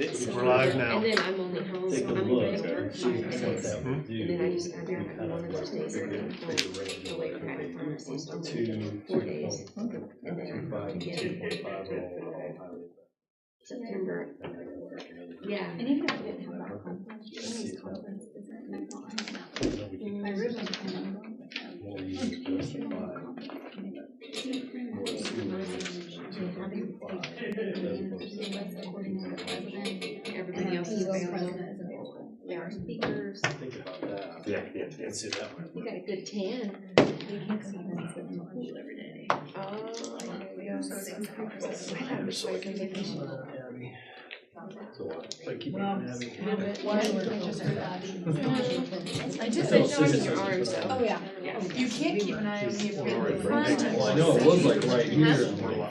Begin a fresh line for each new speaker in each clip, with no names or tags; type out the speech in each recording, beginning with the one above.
it.
We're live now.
And then I'm only home,
Take a
I'm
look.
away for
See
five
what
days.
that
And
would
then I
do.
used, I did, I wanted to taste it, and I'm away from my pharmacy, so I'm
Two,
gonna
two
four days.
point
And then
five, two point five overall highway.
September,
And I gotta work another-
yeah.
And even if I didn't have that conference, this conference isn't.
No, we can-
I really don't
more users justify more students to
having
comply.
Everybody else is available.
There are speakers.
Think about that.
Yeah, yeah, yeah.
And see that one.
You got a good ten.
We have conferences in the whole every day.
Oh,
So I
I just
So,
said no
scissors
to your
are
arm,
just-
so.
Oh, yeah.
You can't keep an eye on me if you're in the front.
Well, I know it was like right
Huh?
here.
We're live.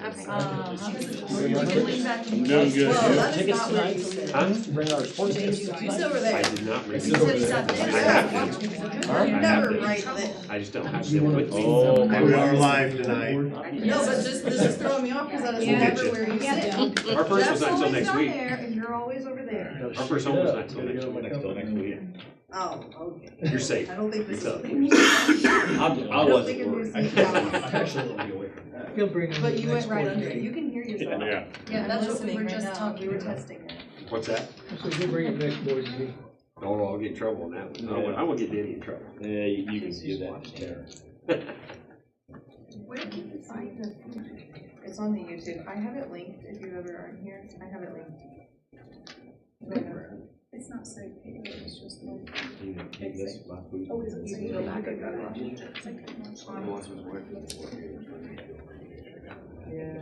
Uh, how does-
We're not
Lean back and-
Doing good.
Whoa, that is not what you said.
Huh?
Bring our sports teams.
It's over
I
there.
did not read
You
over
said
it.
it's
there.
up there.
I have I
You're
have
never
been.
right there.
I just don't have
Do you
them
wanna-
with me.
Oh,
I
we
will-
are
live tonight.
No, but just, this is throwing me off because that is
We'll get
never
you.
where you sit.
Our first was
Jeff's
not until
always
next
down
week.
there and you're always over there.
Our first one was not until next week.
Oh, okay.
You're safe.
I don't think this
You're
is.
tough.
I,
I wasn't worried.
Actually, let me get away from that.
He'll bring them
But
the
you
next
went right
board
under it.
meeting.
You can hear yourself.
Yeah.
Yeah, that's what we
Listening
were
right
just
now.
talking, we were testing it.
What's that?
So he'll bring it next board meeting.
Oh, I'll get in trouble on that one. I won't, I won't get Danny in trouble.
Yeah, you, you can do that to Tara.
Where can you find this? It's on the YouTube. I have it linked if you ever aren't here. I have it linked.
It's not so big, it's just like.
You can take this last week.
Oh, is it?
You can go back and go back.
it's like a much
The
longer-
ones was working.
Yeah,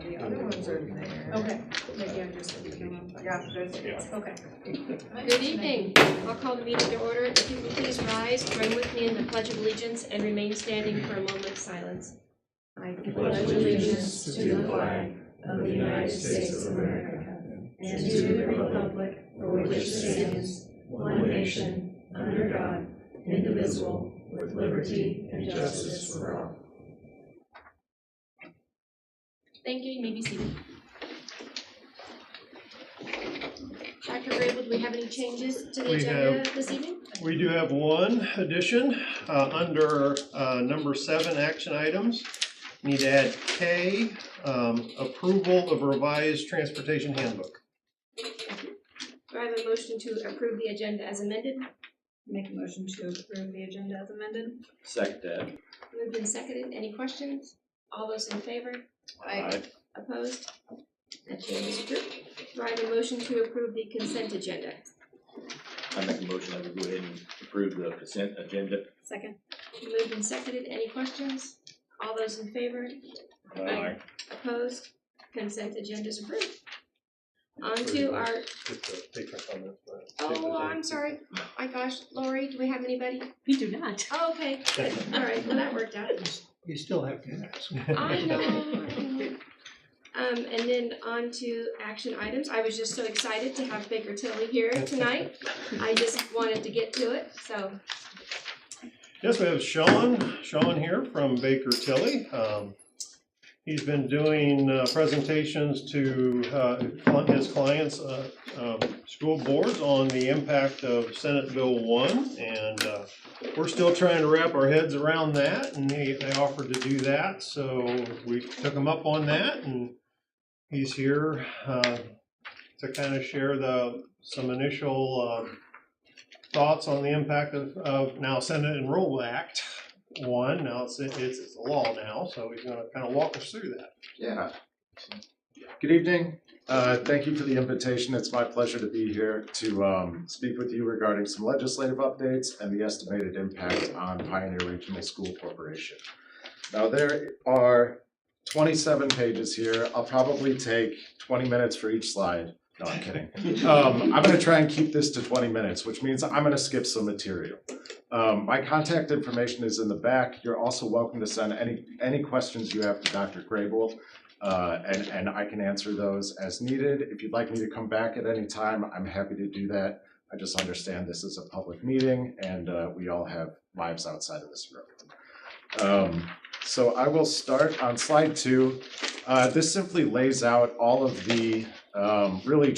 the other ones are there.
Okay, maybe I'm just looking at them.
Yeah, those are-
Okay.
Good evening. I'll call the meeting to order. If you will please rise, join with me in the Pledge of Allegiance and remain standing for a moment of silence. I pledge allegiance to the flag of the United States of America and to the republic for which it stands, one nation, under God, indivisible, with liberty and justice for all. Thank you. You may be seated. Dr. Grable, do we have any changes to the
We
agenda this evening?
We do have one addition, uh, under, uh, number seven, action items. Need to add K, um, approval of revised transportation handbook.
Do I have a motion to approve the agenda as amended?
Make a motion to approve the agenda as amended?
Second that.
Moved and seconded, any questions? All those in favor?
Aye.
Opposed? That change is approved. Do I have a motion to approve the consent agenda?
I make a motion that we go ahead and approve the consent agenda.
Second.
Moved and seconded, any questions? All those in favor?
Aye.
Opposed? Consent agenda is approved. On to our,
Just to take our comments, but-
oh, I'm sorry, my gosh, Lori, do we have anybody?
We do not.
Oh, okay, all right, well, that worked out.
You still have to ask.
I know. I know. Um, and then on to action items. I was just so excited to have Baker Tilly here tonight. I just wanted to get to it, so.
Yes, we have Sean, Sean here from Baker Tilly. Um, He's been doing uh, presentations to uh, his clients, uh, um, school boards on the impact of Senate Bill one. And uh, we're still trying to wrap our heads around that and they, they offered to do that. So we took him up on that and he's here uh, to kind of share the, some initial um, thoughts on the impact of, of now Senate Enroll Act one, now it's, it's, it's a law now, so he's gonna kind of walk us through that.
Yeah. Good evening. Uh, Thank you for the invitation. It's my pleasure to be here to um, speak with you regarding some legislative updates and the estimated impact on Pioneer Regional School Corporation. Now, there are 27 pages here. I'll probably take 20 minutes for each slide. No, I'm kidding. Um, I'm going to try and keep this to 20 minutes, which means I'm going to skip some material. Um, my contact information is in the back. You're also welcome to send any, any questions you have to Dr. Grable. Uh, and, and I can answer those as needed. If you'd like me to come back at any time, I'm happy to do that. I just understand this is a public meeting and uh, we all have lives outside of this room. Um, So I will start on slide two. Uh, This simply lays out all of the um, really